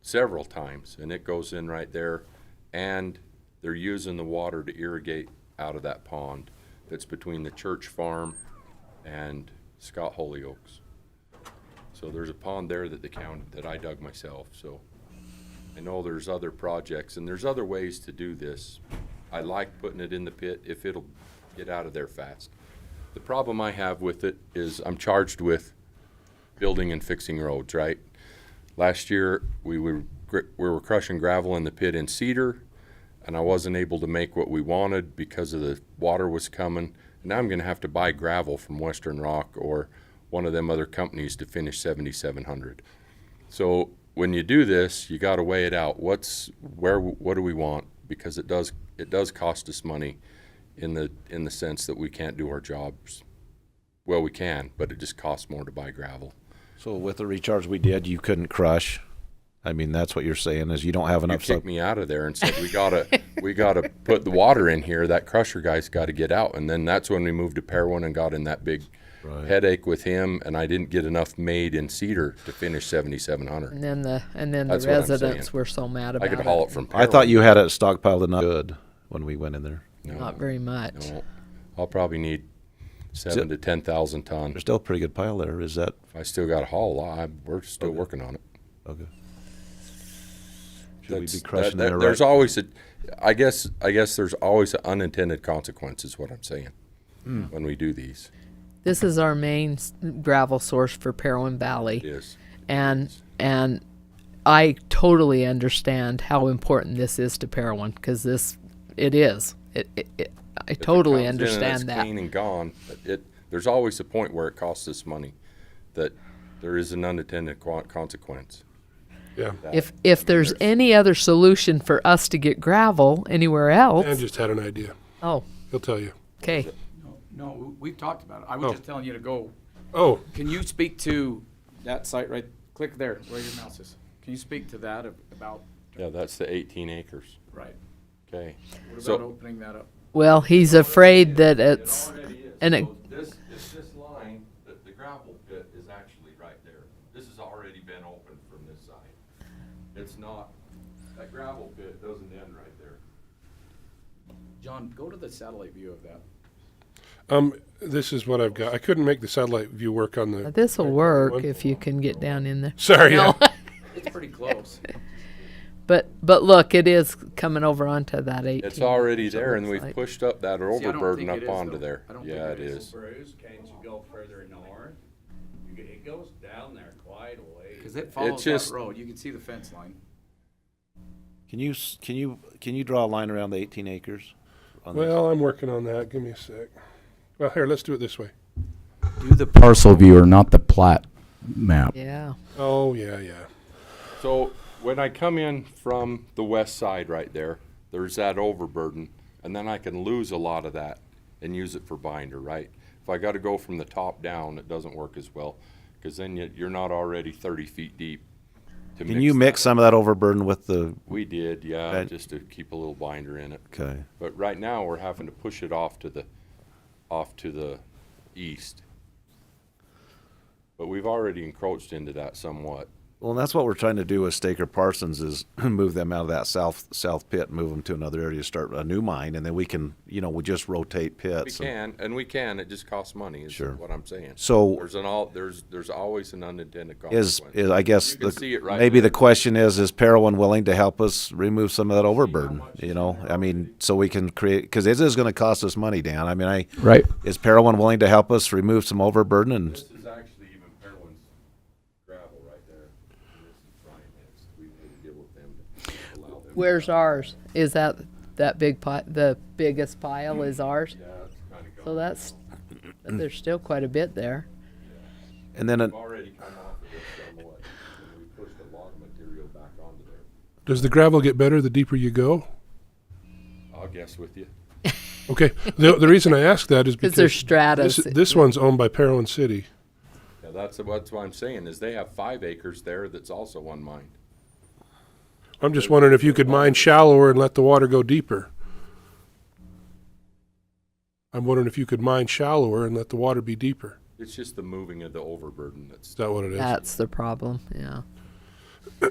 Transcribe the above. several times, and it goes in right there. And they're using the water to irrigate out of that pond that's between the church farm and Scott Holyoaks. So there's a pond there that the county, that I dug myself, so. I know there's other projects, and there's other ways to do this. I like putting it in the pit if it'll get out of there fast. The problem I have with it is I'm charged with building and fixing roads, right? Last year, we were, gr- we were crushing gravel in the pit in Cedar, and I wasn't able to make what we wanted because of the water was coming. And now I'm gonna have to buy gravel from Western Rock or one of them other companies to finish seventy-seven hundred. So when you do this, you got to weigh it out. What's where? What do we want? Because it does it does cost us money, in the in the sense that we can't do our jobs. Well, we can, but it just costs more to buy gravel. So with the recharge we did, you couldn't crush. I mean, that's what you're saying is you don't have You enough. kicked Sub- me out of there and said we gotta we gotta put the water in here. That crusher guy's got to get out. And then that's when we moved to Perwin and got in that big headache with him. And I didn't get enough made in Cedar to finish seventy seven hundred. And then the and then That's the what I'm residents saying. were so mad I about could it. haul it from. I Perwin. thought you had it stockpiled enough good when we went in there. Not very much. No, I'll probably need seven to ten thousand ton. There's still a pretty good pile there. Is that I still got a haul. I, we're still working on it. okay? Should we That's- be that- crushing there? that- There's right? always a, I guess, I guess there's always an unintended consequence is what I'm saying Hmm. when we do these. This is our main s- gravel source for Parowan Valley. Yes, and and I totally understand how important this is to Parowan because this it is. It, it, it I totally Comes in and it's understand that. Clean and gone. but It there's always a point where it costs us money, that there is an unintended quan- consequence. Yeah. If if there's any other solution for us to get gravel anywhere Dan else, just had an idea. oh, He'll tell you. okay. No, we- we've talked about it. I was just telling you to go. Oh, Can you speak to that site right, click there, where your mouse is? Can you speak to that ab- about, Yeah, that's the 18 acres. right? Okay. What So- about opening that up? Well, he's afraid that it's It already is. and it- So This, it's this line, the, the gravel pit is actually right there. This has already been opened from this side. It's not, that gravel pit doesn't end right there. John, go to the satellite view of that. um, this is what I've got. I couldn't make the satellite view work on the. this will work One- if you can get down in there. Sorry. No. yeah. It's pretty close. But but look, it is coming over onto that 18. It's already there and looks we've like- pushed up that See, I don't overburden think up it is, onto though. there. I don't think Yeah, it it is. is. Bruce, can't you go further north? You get, it goes down there quite a ways. Because it follows that just- road. You can see the fence line. Can you s- can you can you draw a line around the 18 acres? On this? Well, I'm working on that. Give me a sec. Well, here, let's do it this way. Do the parcel viewer, not the plat map. Yeah. Oh, yeah, yeah. So when I come in from the west side right there, there's that overburden, and then I can lose a lot of that and use it for binder, right? If I gotta go from the top down, it doesn't work as well, cause then you, you're not already thirty feet deep. to Can you mix that. some of that overburden with the? We did, yeah, That- just to keep a little binder in it. Okay. But right now, we're having to push it off to the, off to the east. But we've already encroached into that somewhat. Well, and that's what we're trying to do with Staker Parsons is move them out of that south south pit, move them to another area, start a new mine, and then we can, you know, we just rotate We pits. and- can, and we can, it just costs money, is Sure. what I'm saying. So- There's an all, there's, there's always an unintended Is, consequence. is I guess You can the, see it right maybe there. the question is is Parowan willing to help us remove some of that overburden? You know, I mean, so we can create because it is going to cost us money, Dan. I mean, I Right. is Parowan willing to help us remove some overburden and This is actually even Parowan's gravel right there. And this is Brian Hicks. We need to deal with them to allow them. Where's ours? Is that that big pot? The biggest pile is ours. Yeah, it's kinda gone. So that's there's still quite a bit there. and then it, We've already come off of this somewhat, and we pushed a lot of material back onto there. Does the gravel get better the deeper you go? I'll guess with you. Okay. The, the reason I ask that is because Because there's stratas. this, this one's owned by Parowan City. Yeah, that's, that's what I'm saying, is they have five acres there that's also unmined. I'm just wondering if you could mine shallower and let the water go deeper. I'm wondering if you could mine shallower and let the water be deeper. It's just the moving of the overburden that's, Is that what it is? That's the problem. Yeah.